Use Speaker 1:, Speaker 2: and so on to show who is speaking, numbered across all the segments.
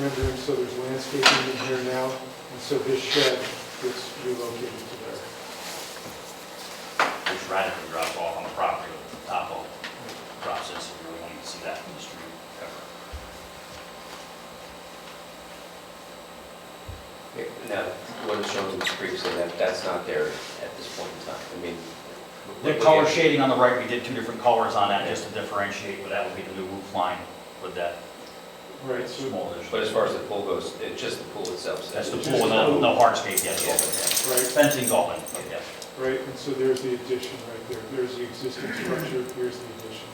Speaker 1: rendering, so there's landscaping in here now, and so this shed gets relocated to there.
Speaker 2: which radically drops off on the property, topo drops in, so you really won't see that from the street ever.
Speaker 3: Now, what is shown previously, that, that's not there at this point in time, I mean.
Speaker 2: The color shading on the right, we did two different colors on that, just to differentiate, but that would be the new roof line with that
Speaker 1: Right, so
Speaker 2: small
Speaker 3: But
Speaker 2: addition.
Speaker 3: as far as the pool goes, it's just the pool itself.
Speaker 2: That's the pool, no, no hardscape yet, yeah.
Speaker 1: Right,
Speaker 2: Fencing's all in, yeah.
Speaker 1: right, and so there's the addition right there, there's the existing structure, here's the addition.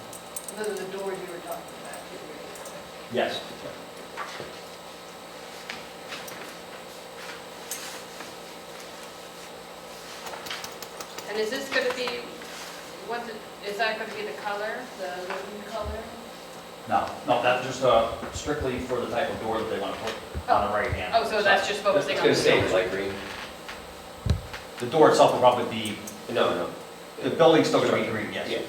Speaker 4: Those are the doors you were talking about. too,
Speaker 2: Yes.
Speaker 4: right? And is this going to be, what, the- is that going to be the color, the living color?
Speaker 2: No, no, that's just uh, strictly for the type of door that they want to put on the right hand.
Speaker 4: Oh, so that's
Speaker 3: It's
Speaker 4: just focusing on the
Speaker 3: gonna stay
Speaker 4: doors?
Speaker 3: light green,
Speaker 2: The door itself will probably be,
Speaker 3: no, no.
Speaker 2: the building's still going to be green, yes.
Speaker 3: Yeah.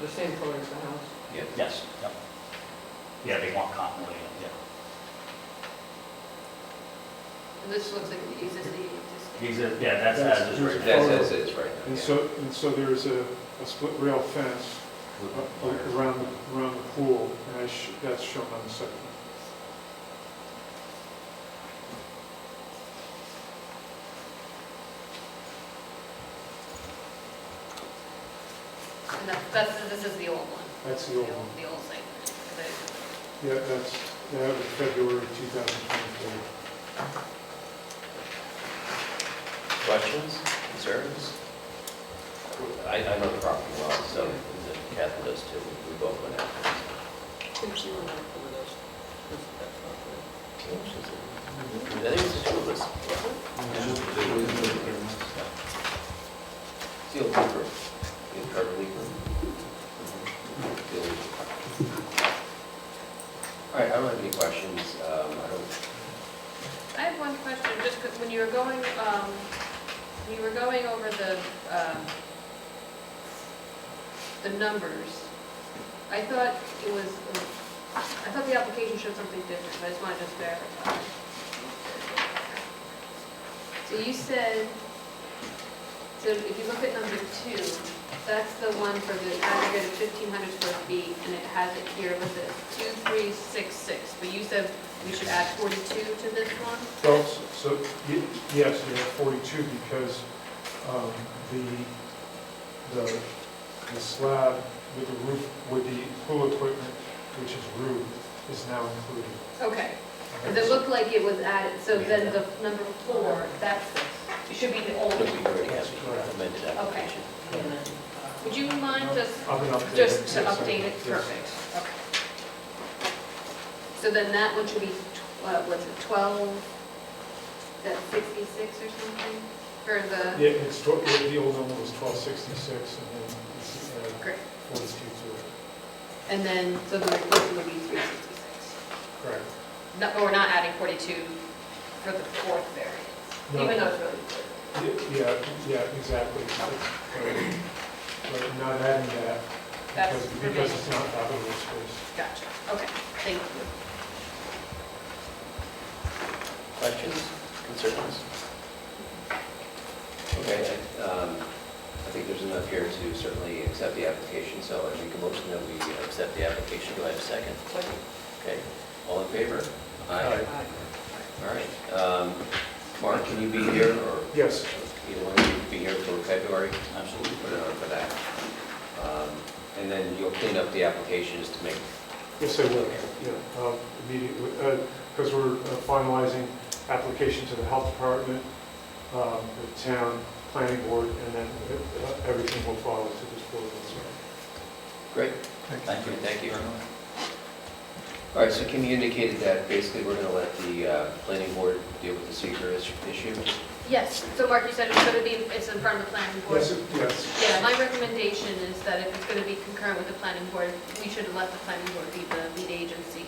Speaker 5: The same color as the house?
Speaker 3: Yeah.
Speaker 2: Yes, yep. Yeah, they want continuity, yeah.
Speaker 4: And This looks like the existing, existing.
Speaker 2: Exist- Yeah, that's, that is right.
Speaker 3: That's, that's it right now.
Speaker 1: And
Speaker 3: yeah.
Speaker 1: so, and so there's a, a split rail fence a- a- around, the- around the pool, and I sh- that's shown on the second.
Speaker 4: And that- that's, this is the old one?
Speaker 1: That's the old one.
Speaker 4: The old site. plan.
Speaker 1: Yeah, that's, that was February 2024.
Speaker 3: Questions, concerns? I, I know the property well, so and Catherine does too, we both went out. I think it's the two of us. Seal paper, you have carbon leak room. All right, I don't have any questions, um, I don't,
Speaker 4: I have one question, just 'cause when you were going, um, when you were going over the, um, the numbers, I thought it was, I thought the application showed something different, but I just wanted to verify. So you said, so if you look at number two, that's the one for the aggregate of 1,500 square feet, and it has it here with the 2366, but you said we should add 42 to this one?
Speaker 1: Well, s- so, y- yes, you have 42 because um, the, the the slab with the roof, with the pool equipment, which is roof, is now included.
Speaker 4: Okay, because it looked like it was added, so then the number four, that's, it should be the old
Speaker 3: I don't think we
Speaker 4: one.
Speaker 3: already have the amended application.
Speaker 4: Would you mind just,
Speaker 1: I've been updating.
Speaker 4: just to
Speaker 1: Yes, I-
Speaker 4: update it,
Speaker 1: yes.
Speaker 4: perfect, okay. So then that one should be, tw- uh, what's it, 12, that 66 or something, for the,
Speaker 1: Yeah, it's, tw- the the old number was 1266 and then it's uh,
Speaker 4: great.
Speaker 1: 42 to it.
Speaker 4: And then, so the replacement would be 366.
Speaker 1: Correct.
Speaker 4: No, but we're not adding 42 for the fourth variance,
Speaker 1: No.
Speaker 4: even though it's really important.
Speaker 1: Yeah, Yeah, yeah, exactly. uh, But not adding that
Speaker 4: That's
Speaker 1: because, because it's not habitable space.
Speaker 4: Gotcha, okay, thank you.
Speaker 3: Questions, concerns? Okay, I, um, I think there's enough here to certainly accept the application, so I make a motion that we accept the application. Do I have a second? Second. Okay, all in favor? Aye. All right, um, Mark, can you be here, or
Speaker 1: Yes,
Speaker 3: either one of you be here for February?
Speaker 2: Absolutely.
Speaker 3: We'll put it on for that. Um, And then you'll clean up the applications to make,
Speaker 1: yes, I will, yeah, um, immediately, because we're uh, finalizing application to the health department, um, the town planning board, and then uh, everything will follow to this board.
Speaker 3: great.
Speaker 2: Thank you.
Speaker 3: Thank you. All right, so Kim, you indicated that basically we're going to let the uh, planning board deal with the seeker is- issue.
Speaker 4: Yes, so Mark, you said it's going to be, it's in front of the planning board?
Speaker 1: Yes, yes,
Speaker 4: Yeah, my recommendation is that if it's going to be concurrent with the planning board, we should let the planning board be the lead agency.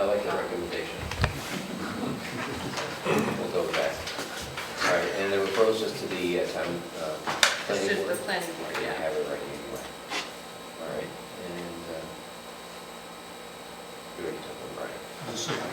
Speaker 3: I like that recommendation. We'll go with that. All right, and the referrals just to the uh, town uh,
Speaker 4: It's
Speaker 3: planning
Speaker 4: just the
Speaker 3: board.
Speaker 4: planning board,
Speaker 3: Yeah, I
Speaker 4: yeah.
Speaker 3: have it right anyway. All right, and, uh, we already took them, right?
Speaker 2: Just
Speaker 1: decision.